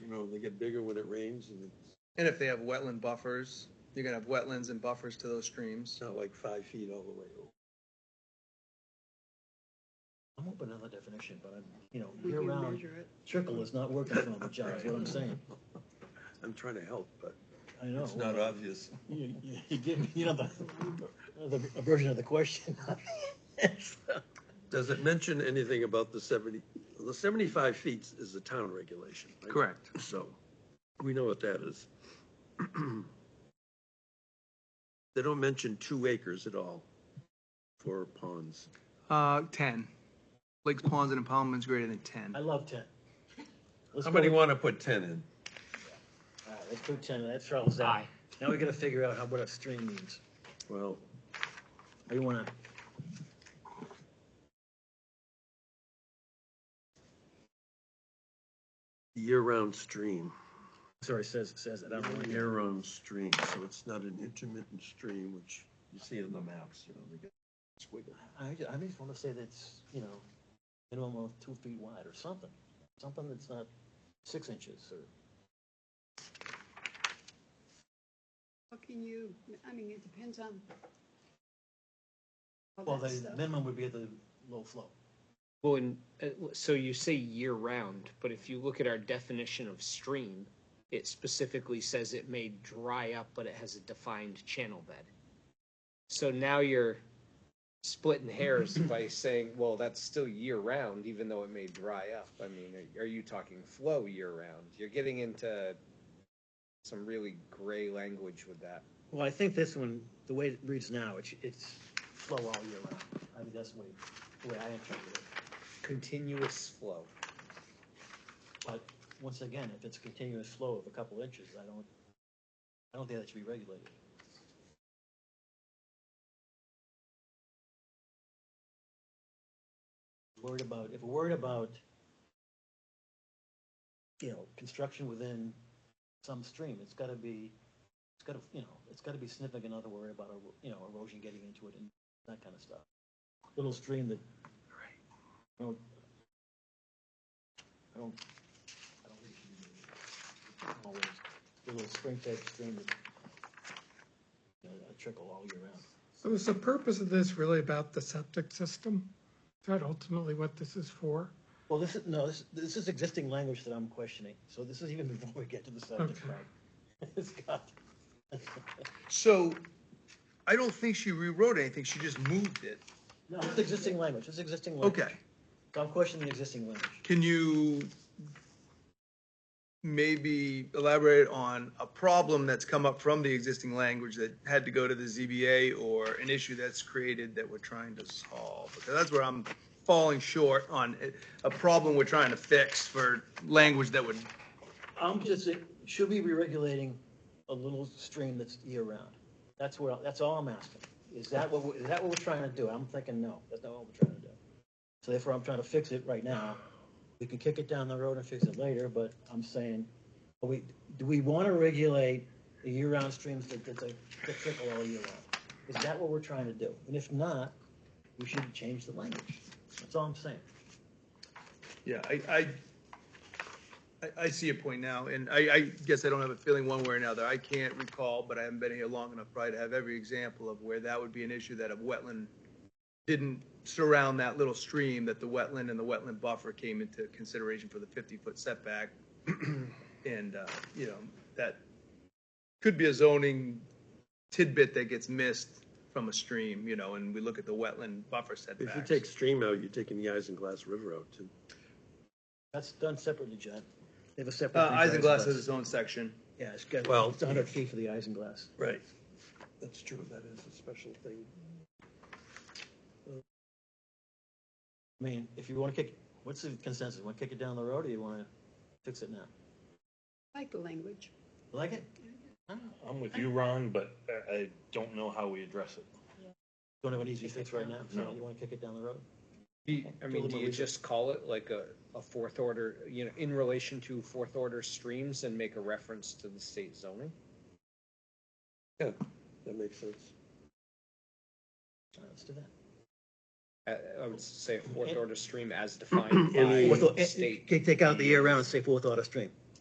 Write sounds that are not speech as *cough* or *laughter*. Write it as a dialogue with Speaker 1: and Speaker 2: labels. Speaker 1: you know, they get bigger when it rains and it's
Speaker 2: And if they have wetland buffers, you're gonna have wetlands and buffers to those streams.
Speaker 1: not like five feet all the way over.
Speaker 3: I'm open to another definition, but I'm, you know,
Speaker 4: We
Speaker 3: year
Speaker 4: can
Speaker 3: round,
Speaker 4: measure it.
Speaker 3: trickle is not working for me, John, is *laughs* what I'm saying.
Speaker 1: I'm trying to help, but
Speaker 3: I know.
Speaker 1: it's not obvious.
Speaker 3: You, you, you give me, you know, the, the a version of the question. *laughs*
Speaker 1: Does it mention anything about the seventy, the seventy-five feet is the town regulation? right?
Speaker 2: Correct.
Speaker 1: So, we know what that is. *clears throat* They don't mention two acres at all for ponds.
Speaker 2: Uh, ten. Lakes, ponds, and impoundments greater than ten.
Speaker 3: I love ten. Let's go
Speaker 1: Somebody
Speaker 3: with-
Speaker 1: wanna put ten in?
Speaker 3: All right, let's do ten, that throttles down. Now we gotta figure out how, what a stream means.
Speaker 1: Well,
Speaker 3: How you wanna?
Speaker 1: year-round stream,
Speaker 3: Sorry, says, says it, I don't really care.
Speaker 1: year-round stream, so it's not an intermittent stream, which you see on the maps, you know, they get squiggle.
Speaker 3: I, ju- I just wanna say that's, you know, minimum of two feet wide or something, something that's not six inches or.
Speaker 4: How can you, I mean, it depends on. all
Speaker 3: Well,
Speaker 4: that
Speaker 3: the
Speaker 4: stuff.
Speaker 3: minimum would be at the low flow.
Speaker 5: Well, and uh, so you say year round, but if you look at our definition of stream, it specifically says it may dry up, but it has a defined channel bed. So now you're splitting hairs by saying, well, that's still year round, even though it may dry up. I mean, are you talking flow year round? You're getting into some really gray language with that.
Speaker 3: Well, I think this one, the way it reads now, it's, it's flow all year round. I mean, that's the way, the way I interpret it.
Speaker 5: Continuous flow.
Speaker 3: But once again, if it's a continuous flow of a couple inches, I don't, I don't think that should be regulated. Worried about, if we're worried about, you know, construction within some stream, it's gotta be, it's gotta, you know, it's gotta be significant, other worry about, ero- you know, erosion getting into it and that kind of stuff. Little stream that, I don't, I don't I don't think you can do it. Always, a little spring type stream that, you know, a trickle all year round.
Speaker 6: So is the purpose of this really about the septic system? Is that ultimately what this is for?
Speaker 3: Well, this is, no, this, this is existing language that I'm questioning, so this is even *laughs* before we get to the subject,
Speaker 6: Okay.
Speaker 3: right? *laughs* It's got,
Speaker 2: So, I don't think she rewrote anything, she just moved it.
Speaker 3: no, it's existing language, it's existing language.
Speaker 2: Okay,
Speaker 3: So I'm questioning the existing language.
Speaker 2: can you maybe elaborate on a problem that's come up from the existing language that had to go to the ZBA or an issue that's created that we're trying to solve? Because that's where I'm falling short on it- a problem we're trying to fix for language that would,
Speaker 3: I'm just, should we be regulating a little stream that's year round? That's where, that's all I'm asking. Is that what, we- is that what we're trying to do? I'm thinking, no, that's not what we're trying to do. So therefore, I'm trying to fix it right now. We can kick it down the road and fix it later, but I'm saying, are we, do we want to regulate the year-round streams that, that, that trickle all year round? Is that what we're trying to do? And if not, we should change the language. That's all I'm saying.
Speaker 2: yeah, I, I, I, I see your point now, and I, I guess I don't have a feeling one way or another. I can't recall, but I haven't been here long enough probably to have every example of where that would be an issue that a wetland didn't surround that little stream, that the wetland and the wetland buffer came into consideration for the fifty-foot setback. *clears throat* And, uh, you know, that could be a zoning tidbit that gets missed from a stream, you know, and we look at the wetland buffer setbacks.
Speaker 1: If you take stream out, you're taking the Isinglass River out too.
Speaker 3: That's done separately, John. They have a separate.
Speaker 2: Uh, Isinglass
Speaker 3: regulations.
Speaker 2: has its own section.
Speaker 3: Yeah, it's got,
Speaker 1: Well-
Speaker 3: it's hundred feet for the isinglass.
Speaker 1: Right. That's true, that is a special thing.
Speaker 3: I mean, if you wanna kick, what's the consensus? Wanna kick it down the road or you wanna fix it now?
Speaker 4: I Like the language.
Speaker 3: You Like it?
Speaker 7: I'm with you, Ron, but I- I don't know how we address it.
Speaker 3: Don't have an easy fix right now, so
Speaker 7: No.
Speaker 3: you wanna kick it down the road?
Speaker 5: I mean, do you just call it like a, a fourth order, you know, in relation to fourth order streams and make a reference to the state zoning?
Speaker 1: Yeah, that makes sense.
Speaker 3: All right, Let's do that.
Speaker 5: I, Uh, I would say a fourth
Speaker 3: And-
Speaker 5: order stream as defined
Speaker 1: and I-
Speaker 5: by
Speaker 3: Fourth,
Speaker 5: the state.
Speaker 3: take out the year round and say fourth order stream.